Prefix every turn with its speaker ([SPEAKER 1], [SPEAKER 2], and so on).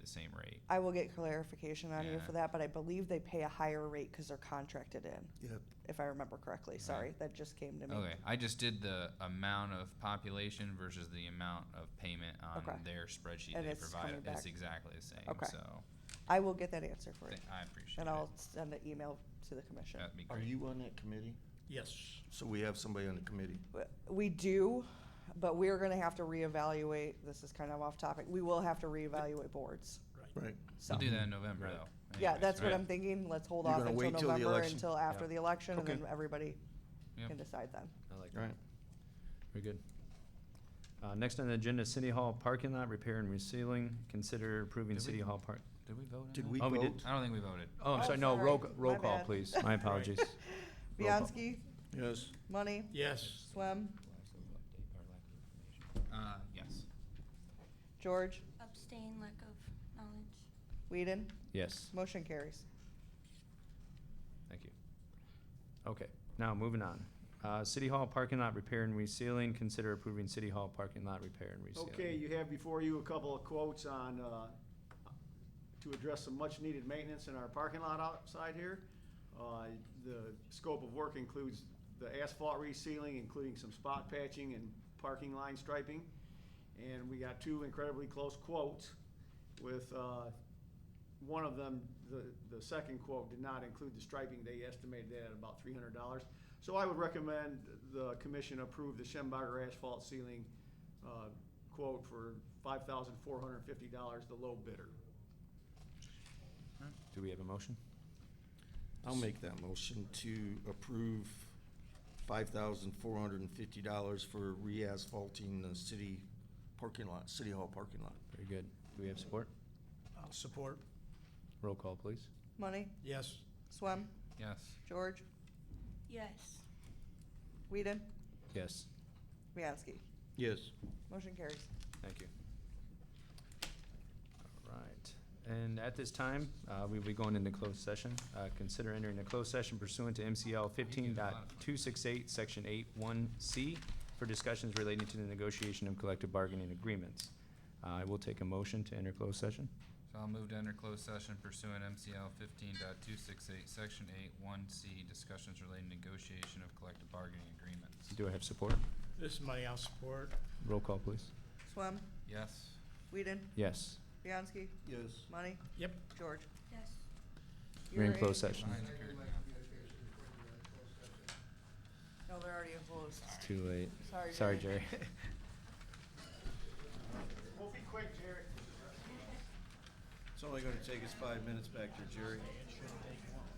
[SPEAKER 1] the same rate.
[SPEAKER 2] I will get clarification on you
[SPEAKER 1] Yeah.
[SPEAKER 2] for that, but I believe they pay a higher rate because they're contracted in,
[SPEAKER 3] Yeah,
[SPEAKER 2] if I remember correctly. Sorry, that just came to me.
[SPEAKER 1] Okay, I just did the amount of population versus the amount of payment on
[SPEAKER 2] Okay.
[SPEAKER 1] their spreadsheet
[SPEAKER 2] And
[SPEAKER 1] they
[SPEAKER 2] it's
[SPEAKER 1] provide.
[SPEAKER 2] coming
[SPEAKER 1] It's
[SPEAKER 2] back.
[SPEAKER 1] exactly the same,
[SPEAKER 2] Okay.
[SPEAKER 1] so
[SPEAKER 2] I will get that answer for you,
[SPEAKER 1] th- I appreciate it.
[SPEAKER 2] and I'll send an email to the commission.
[SPEAKER 1] That'd be
[SPEAKER 3] are
[SPEAKER 1] great.
[SPEAKER 3] you on that committee?
[SPEAKER 4] Yes.
[SPEAKER 3] So we have somebody on the committee.
[SPEAKER 2] W- We do, but we're gonna have to reevaluate, this is kind of off topic, we will have to reevaluate boards,
[SPEAKER 3] Right.
[SPEAKER 2] so.
[SPEAKER 1] We'll do that in November,
[SPEAKER 4] Right.
[SPEAKER 1] though.
[SPEAKER 2] Yeah,
[SPEAKER 1] anyways,
[SPEAKER 2] that's what
[SPEAKER 1] right?
[SPEAKER 2] I'm thinking, let's hold
[SPEAKER 3] You're
[SPEAKER 2] off
[SPEAKER 3] gonna
[SPEAKER 2] until
[SPEAKER 3] wait till the
[SPEAKER 2] November,
[SPEAKER 3] election?
[SPEAKER 2] until after the election, and
[SPEAKER 3] Okay.
[SPEAKER 2] then everybody
[SPEAKER 1] Yep.
[SPEAKER 2] can decide then.
[SPEAKER 5] I like
[SPEAKER 3] All
[SPEAKER 5] that.
[SPEAKER 3] right.
[SPEAKER 5] Very good. Uh, next on the agenda, City Hall parking lot repair and resealing. Consider approving
[SPEAKER 1] Did we-
[SPEAKER 5] City Hall park.
[SPEAKER 1] Did we vote on
[SPEAKER 3] Did
[SPEAKER 1] that?
[SPEAKER 3] we
[SPEAKER 5] Oh, we did.
[SPEAKER 3] vote?
[SPEAKER 1] I don't think we voted.
[SPEAKER 5] Oh, I'm
[SPEAKER 2] Oh,
[SPEAKER 5] sorry, no,
[SPEAKER 2] sorry.
[SPEAKER 5] roll, c- roll
[SPEAKER 2] My
[SPEAKER 5] call,
[SPEAKER 2] bad.
[SPEAKER 5] please. My apologies. Roll call.
[SPEAKER 2] Bianski,
[SPEAKER 3] Yes.
[SPEAKER 2] Money,
[SPEAKER 4] Yes.
[SPEAKER 2] Swem,
[SPEAKER 1] Uh, yes.
[SPEAKER 2] George,
[SPEAKER 6] Abstain, lack of knowledge.
[SPEAKER 2] Whedon,
[SPEAKER 5] Yes,
[SPEAKER 2] motion carries.
[SPEAKER 5] thank you. Okay, now moving on. Uh, City Hall parking lot repair and resealing. Consider approving City Hall parking lot repair and resealing.
[SPEAKER 7] Okay, you have before you a couple of quotes on, uh, to address some much-needed maintenance in our parking lot outside here. Uh, The scope of work includes the asphalt resealing, including some spot patching and parking line striping. And we got two incredibly close quotes with, uh, one of them, the, the second quote did not include the striping. They estimated that at about three hundred dollars. So I would recommend the commission approve the Schemberger asphalt ceiling, uh, quote for five thousand four hundred and fifty dollars, the low bidder.
[SPEAKER 5] Do we have a motion?
[SPEAKER 3] I'll make that motion to approve five thousand four hundred and fifty dollars for re-asphalting the city parking lot, city hall parking lot.
[SPEAKER 5] Very good. Do we have support?
[SPEAKER 4] I'll support.
[SPEAKER 5] Roll call, please.
[SPEAKER 2] Money,
[SPEAKER 4] Yes.
[SPEAKER 2] Swem,
[SPEAKER 1] Yes.
[SPEAKER 2] George,
[SPEAKER 6] Yes.
[SPEAKER 2] Whedon,
[SPEAKER 5] Yes,
[SPEAKER 2] Bianski,
[SPEAKER 3] Yes.
[SPEAKER 2] motion carries.
[SPEAKER 5] thank you. All right, and at this time, uh, we'll be going into closed session. Uh, Consider entering a closed session pursuant to MCL fifteen section eight one C for discussions relating to the negotiation of collective bargaining agreements. Uh, I will take a motion to enter closed session.
[SPEAKER 1] So I'll move to enter closed session pursuant MCL fifteen section eight one C, discussions relating negotiation of collective bargaining agreements.
[SPEAKER 5] Do I have support?
[SPEAKER 4] This money I'll support.
[SPEAKER 5] Roll call, please.
[SPEAKER 2] Swem,
[SPEAKER 1] Yes.
[SPEAKER 2] Whedon,
[SPEAKER 5] Yes,
[SPEAKER 2] Bianski,
[SPEAKER 3] Yes.
[SPEAKER 2] Money,
[SPEAKER 4] Yep.
[SPEAKER 2] George.
[SPEAKER 6] Yes.
[SPEAKER 5] we're in
[SPEAKER 2] You're
[SPEAKER 5] closed session.
[SPEAKER 1] Mine's carried now.
[SPEAKER 2] No, they're already in closed.
[SPEAKER 5] It's too late.
[SPEAKER 2] Sorry,
[SPEAKER 5] Sorry,
[SPEAKER 2] Jerry.
[SPEAKER 5] Jerry.
[SPEAKER 7] We'll be quick, Jared.
[SPEAKER 3] It's only gonna take us five minutes back there, Jerry.
[SPEAKER 4] It shouldn't take long.